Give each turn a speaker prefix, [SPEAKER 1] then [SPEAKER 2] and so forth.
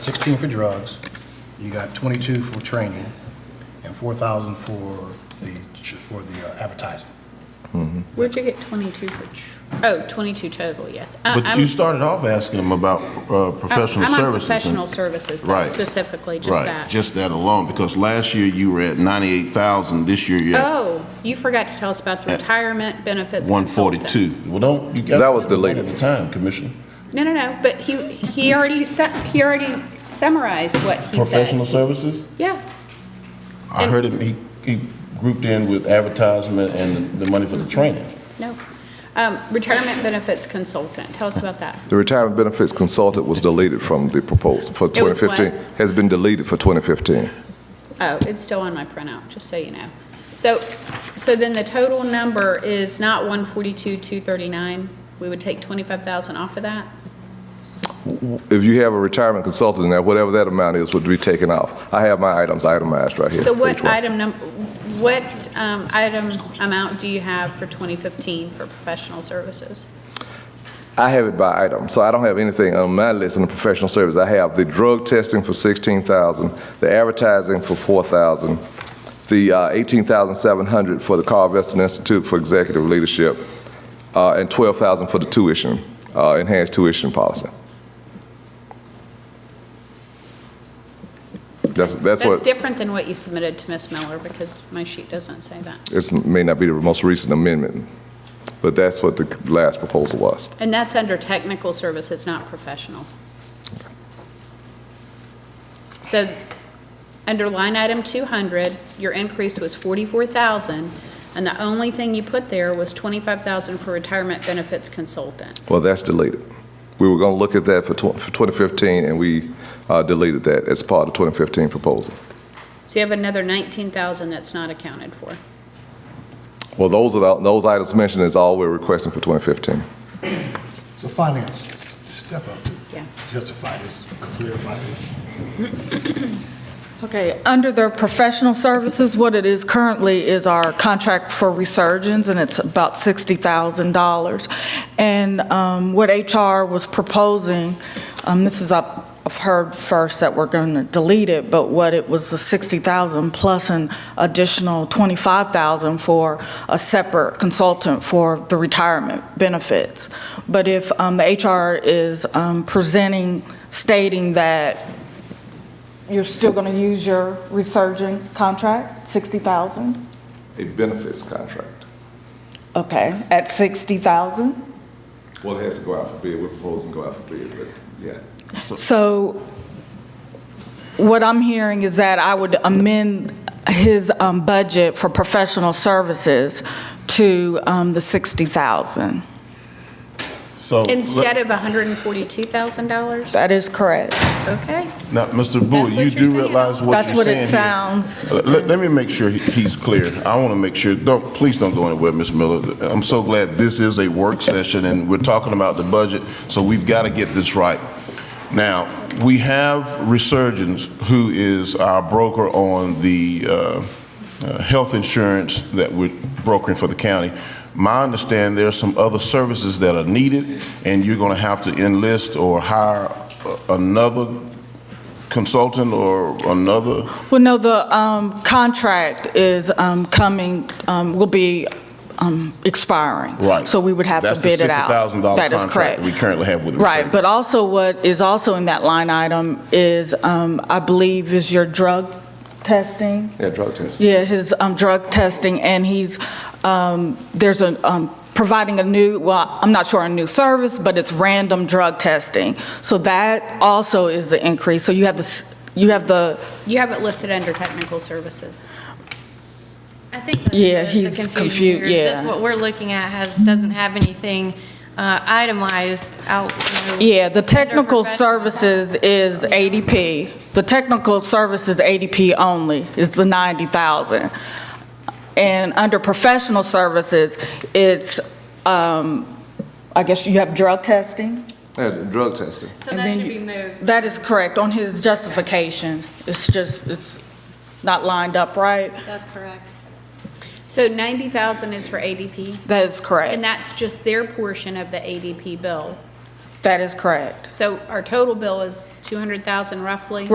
[SPEAKER 1] 16 for drugs, you got 22 for training, and 4,000 for the, for the uh, advertising.
[SPEAKER 2] Where'd you get 22 for, tr- oh, 22 total, yes. I-
[SPEAKER 3] But
[SPEAKER 2] I'm-
[SPEAKER 3] you started off asking them about uh, professional
[SPEAKER 2] I'm on
[SPEAKER 3] services. and-
[SPEAKER 2] professional services, though,
[SPEAKER 3] Right.
[SPEAKER 2] specifically, just that.
[SPEAKER 3] Right, just that alone, because last year you were at 98,000, this year you're at
[SPEAKER 2] Oh, you forgot to tell us about the retirement benefits consultant.
[SPEAKER 3] 142. Well, don't, you got.
[SPEAKER 4] That was the
[SPEAKER 3] one
[SPEAKER 4] latest.
[SPEAKER 3] At a time, Commissioner.
[SPEAKER 2] No, no, no, but he, he already, sa- he already summarized what he
[SPEAKER 3] Professional
[SPEAKER 2] said.
[SPEAKER 3] services?
[SPEAKER 2] Yeah,
[SPEAKER 3] I heard him, he, he grouped in with advertisement and the money for the training.
[SPEAKER 2] no. Um, Retirement benefits consultant, tell us about that.
[SPEAKER 4] The retirement benefits consultant was deleted from the proposal for
[SPEAKER 2] It was
[SPEAKER 4] 2015. Has been deleted for 2015.
[SPEAKER 2] Oh, it's still on my printout, just so you know. So, so then the total number is not 142, 239? We would take 25,000 off of that?
[SPEAKER 4] If you have a retirement consultant in there, whatever that amount is would be taken off. I have my items itemized right here.
[SPEAKER 2] So
[SPEAKER 4] for each
[SPEAKER 2] what
[SPEAKER 4] one.
[SPEAKER 2] item num, what um, item amount do you have for 2015 for professional services?
[SPEAKER 4] I have it by item, so I don't have anything on my list in the professional service. I have the drug testing for 16,000, the advertising for 4,000, the uh, 18,700 for the Carl Veston Institute for Executive Leadership, uh, and 12,000 for the tuition, uh, enhanced tuition policy. That's, that's
[SPEAKER 2] That's
[SPEAKER 4] what,
[SPEAKER 2] different than what you submitted to Ms. Miller, because my sheet doesn't say that.
[SPEAKER 4] this may not be the most recent amendment, but that's what the last proposal was.
[SPEAKER 2] And that's under technical services, not professional. So, under line item 200, your increase was 44,000, and the only thing you put there was 25,000 for retirement benefits consultant.
[SPEAKER 4] Well, that's deleted. We were going to look at that for tw- for 2015, and we uh, deleted that as part of the 2015 proposal.
[SPEAKER 2] So you have another 19,000 that's not accounted for.
[SPEAKER 4] Well, those are, the- those items mentioned is all we're requesting for 2015.
[SPEAKER 1] So finance, step up,
[SPEAKER 2] Yeah.
[SPEAKER 1] justify this, clarify this.
[SPEAKER 5] Okay, under the professional services, what it is currently is our contract for resurgence, and it's about $60,000. And um, what HR was proposing, um, this is, up- I've heard first that we're going to delete it, but what it was, the $60,000 plus an additional $25,000 for a separate consultant for the retirement benefits. But if um, the HR is um, presenting, stating that you're still going to use your resurgent contract, 60,000?
[SPEAKER 4] A benefits contract.
[SPEAKER 5] Okay, at 60,000?
[SPEAKER 4] Well, it has to go out for bid. We're proposing go out for bid, but yeah.
[SPEAKER 5] So what I'm hearing is that I would amend his um, budget for professional services to um, the 60,000.
[SPEAKER 3] So. let-
[SPEAKER 2] Instead of $142,000?
[SPEAKER 5] That is correct.
[SPEAKER 2] Okay.
[SPEAKER 3] Now, Mr.
[SPEAKER 2] That's what
[SPEAKER 3] Bowie, you
[SPEAKER 2] you're
[SPEAKER 3] do
[SPEAKER 2] saying.
[SPEAKER 3] realize what
[SPEAKER 5] That's
[SPEAKER 3] you're
[SPEAKER 5] what
[SPEAKER 3] saying
[SPEAKER 5] it
[SPEAKER 3] here.
[SPEAKER 5] sounds.
[SPEAKER 3] Let, let- let me make sure he- he's clear. I want to make sure, don't, please don't go anywhere, Ms. Miller. I'm so glad this is a work session and we're talking about the budget, so we've got to get this right. Now, we have Resurgence, who is our broker on the uh, uh, health insurance that we're brokering for the county. My understanding, there are some other services that are needed, and you're going to have to enlist or hire uh, another consultant or another?
[SPEAKER 5] Well, no, the um, contract is um, coming, um, will be um, expiring.
[SPEAKER 3] Right.
[SPEAKER 5] So we would have to bid it out.
[SPEAKER 3] That's the $60,000
[SPEAKER 5] That is
[SPEAKER 3] contract
[SPEAKER 5] correct.
[SPEAKER 3] that we currently have with
[SPEAKER 5] Right,
[SPEAKER 3] Mercedes.
[SPEAKER 5] but also what is also in that line item is, um, I believe, is your drug testing.
[SPEAKER 4] Yeah, drug testing.
[SPEAKER 5] Yeah, his um, drug testing, and he's, um, there's a, um, providing a new, well, I'm not sure a new service, but it's random drug testing. So that also is an increase. So you have the, s- you have the,
[SPEAKER 2] You have it listed under technical services.
[SPEAKER 6] I think that's
[SPEAKER 5] Yeah,
[SPEAKER 6] the-
[SPEAKER 5] he's
[SPEAKER 6] the
[SPEAKER 5] confu-
[SPEAKER 6] confusion here, is
[SPEAKER 5] yeah.
[SPEAKER 6] this what we're looking at has, doesn't have anything uh, itemized out, you know.
[SPEAKER 5] yeah, the technical
[SPEAKER 6] professional.
[SPEAKER 5] services is ADP. The technical services ADP only is the 90,000. And under professional services, it's, um, I guess you have drug testing?
[SPEAKER 4] Yeah, drug testing.
[SPEAKER 6] So
[SPEAKER 5] and
[SPEAKER 6] that
[SPEAKER 5] then
[SPEAKER 6] should
[SPEAKER 5] you-
[SPEAKER 6] be moved.
[SPEAKER 5] That is correct, on his justification. It's just, it's not lined up right.
[SPEAKER 6] That's correct.
[SPEAKER 2] So 90,000 is for ADP?
[SPEAKER 5] That is
[SPEAKER 2] And
[SPEAKER 5] correct.
[SPEAKER 2] that's just their portion of the ADP bill.
[SPEAKER 5] That is correct.
[SPEAKER 2] So our total bill is 200,000 roughly?